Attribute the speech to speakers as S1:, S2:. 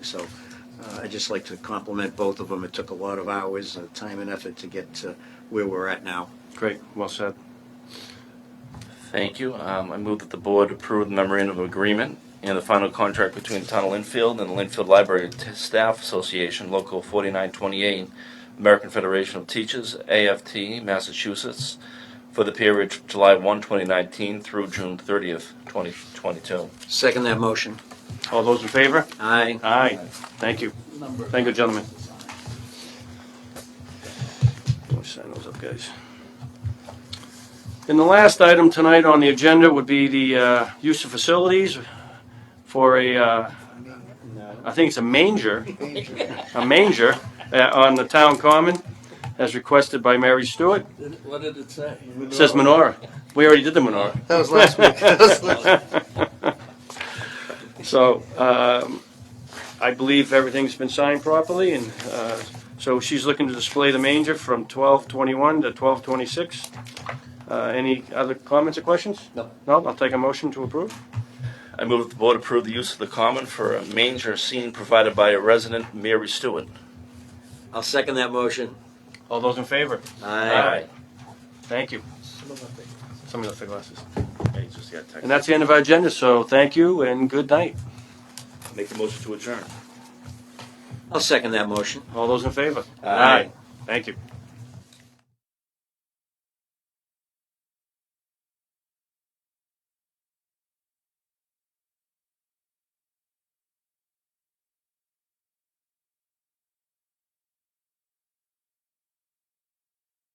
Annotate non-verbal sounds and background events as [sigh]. S1: So uh, I'd just like to compliment both of them. It took a lot of hours, uh, time and effort to get to where we're at now.
S2: Great, well said.
S3: Thank you. Um, I move that the board approve the memorandum of agreement and the final contract between the Town of Linfield and the Linfield Library T- Staff Association, Local 4928, American Federation of Teachers, AFT, Massachusetts, for the period July 1, 2019 through June 30th, 2022.
S1: Second that motion.
S2: All those in favor?
S1: Aye.
S2: Aye. Thank you. Thank you, gentlemen. Let me sign those up, guys. And the last item tonight on the agenda would be the uh, use of facilities for a, uh, I think it's a manger, a manger uh, on the town common, as requested by Mary Stewart.
S4: What did it say?
S2: It Says menorah. We already did the menorah.
S4: That was last
S1: [laughs]
S4: week.
S2: So um, I believe everything's been signed properly, and uh, so she's looking to display the manger from 1221 to 1226. Any other comments or questions?
S1: No.
S2: No, I'll take a motion to approve.
S3: I move that the board approve the use of the common for a manger scene provided by a resident, Mary Stewart.
S1: I'll second that motion.
S2: All those in favor?
S1: Aye.
S2: Thank you. Somebody left their glasses.
S3: Hey, just got text.
S2: And that's the end of our agenda, so thank you and good night.
S3: Make the motion to adjourn.
S1: I'll second that motion.
S2: All those in favor? Thank you.